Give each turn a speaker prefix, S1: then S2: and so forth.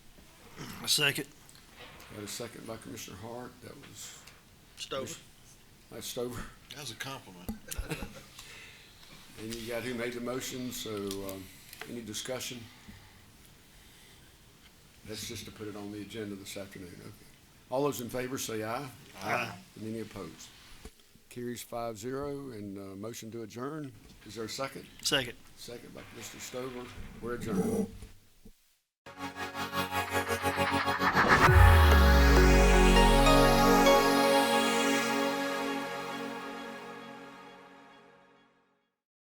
S1: second.
S2: Got a second by Commissioner Hart, that was,
S3: Stover.
S2: that's Stover.
S4: That was a compliment.
S2: And you got who made the motion, so, um, any discussion? That's just to put it on the agenda this afternoon, okay. All those in favor say aye.
S1: Aye.
S2: And any opposed? Carries five zero, and, uh, motion to adjourn, is there a second?
S1: Second.
S2: Second by Mr. Stover, we're adjourned.